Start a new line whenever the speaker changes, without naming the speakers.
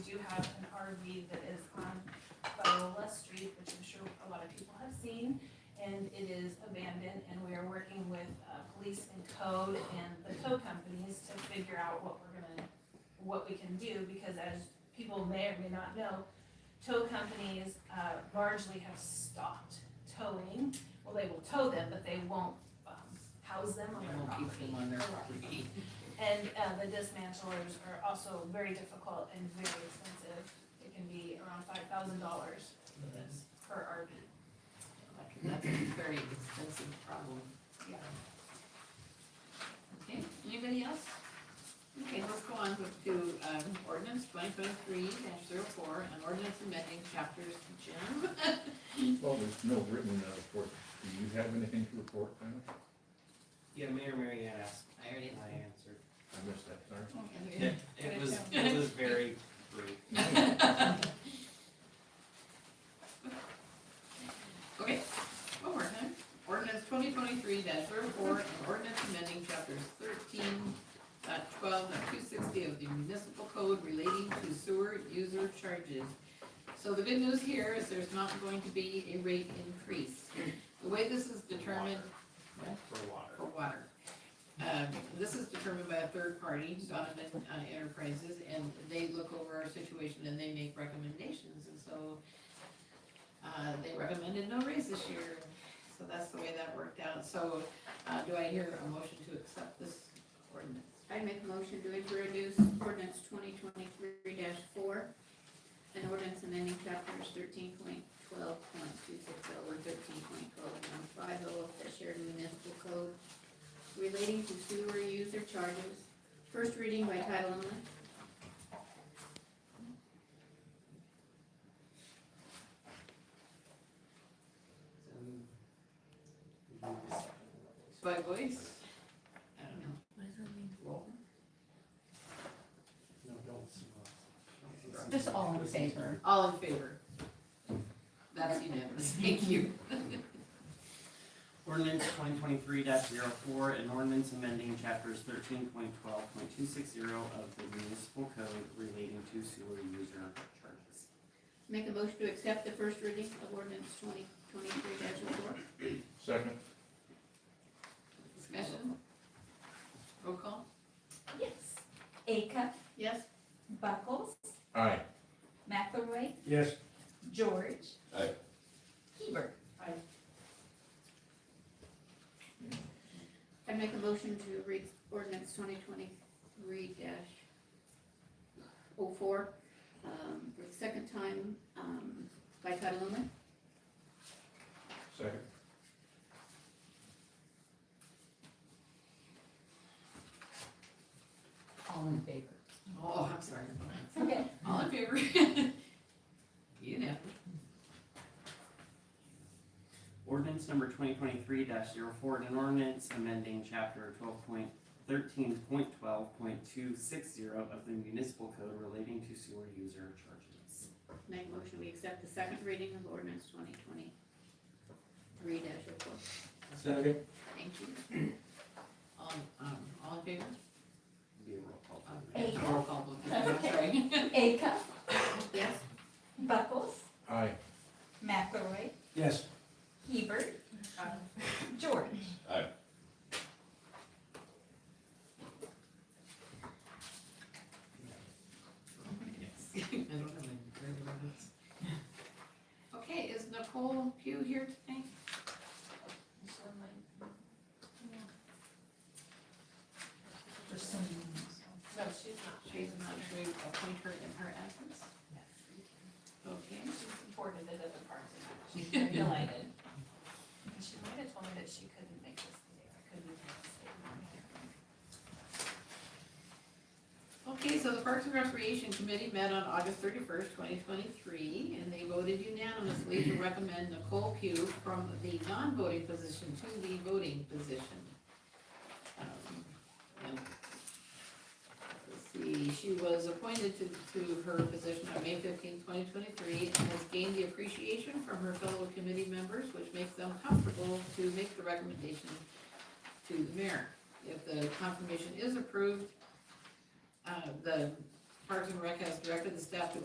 and it is abandoned, and we are working with, uh, police and code and the code companies to figure out what we're gonna, what we can do, because as people may or may not know, tow companies, uh, largely have stopped towing, well, they will tow them, but they won't, um, house them on
They
their
won't
property.
keep them on their property.
And uh, the dismantlers are also very difficult and very expensive. It can be around five thousand dollars for this, per RV.
That's a very expensive problem.
Yeah.
Okay, anybody else? Okay, let's go on with- to, um, ordinance twenty twenty-three dash zero four, an ordinance amending chapters, Jim?
Well, there's no written uh, report. Do you have anything to report, Dennis?
Yeah, Mayor Mary asked,
I already.
I answered.
I missed that, sorry.
It, it was, it was very brief.
Okay, one more time. Ordinance twenty twenty-three 4 and ordinance amending chapters thirteen dot twelve dot two sixty of the municipal code relating to sewer user charges. So the good news here is there's not going to be a rate increase. The way this is determined
Water. For water.
for water. Um, this is determined by a third party, Donovan uh, Enterprises, and they look over our situation and they make recommendations, and so uh, they recommended no raise this year, so that's the way that worked out, so, uh, do I hear a motion to accept this ordinance?
I make a motion to introduce ordinance twenty twenty-three four, an ordinance amending chapters thirteen point twelve point two six oh and thirteen point twelve point five oh of the Sheridan Municipal Code relating to sewer user charges, first reading by title only.
By voice? I don't know.
What does that mean?
Roll.
Just all in favor?
All in favor? That's unanimous, thank you.
Ordinance twenty twenty-three 4 an ordinance amending chapters thirteen point twelve point two six zero of the municipal code relating to sewer user charges.
Make a motion to accept the first reading of ordinance twenty twenty-three four.
Second?
Discussion? Roll call?
Yes. Acuff,
Yes?
Buckles,
Aye.
McElroy,
Yes.
George.
Aye.
Hebert.
I make a motion to read ordinance twenty twenty-three dash oh four, um, for the second time, um, by title only.
Second?
All in favor?
Oh, I'm sorry.
Okay.
All in favor? You know.
Ordinance number twenty twenty-three 4 an ordinance amending chapter twelve point thirteen point twelve point two six zero of the municipal code relating to sewer user charges.
Make a motion, we accept the second reading of ordinance twenty twenty-three dash oh four.
Second.
Thank you. All, um, all in favor? Um,
Be a roll call.
Hey.
Roll call, please. I'm sorry.
Acuff,
Yes?
Buckles,
Aye.
McElroy,
Yes. Uh,
Hebert. George.
Yes. I don't have any very good notes. Okay, is Nicole Pugh here tonight?
No, she's not.
She's not sure we appoint her in her absence? Okay.
She supported it at the parks and Rec. She's very delighted. And She might have told me that she couldn't make this today, or couldn't make this today.
Okay, so the Parks and Recreation Committee met on August thirty-first, twenty twenty-three, and they voted unanimously to recommend Nicole Pugh from the non-voting position to the voting position. Um, and Let's see, she was appointed to, to her position on May fifteenth, twenty twenty-three, and has gained the appreciation from her fellow committee members, which makes them comfortable to make the recommendation to the mayor. If the confirmation is approved, uh, the Parks and Rec has directed the staff to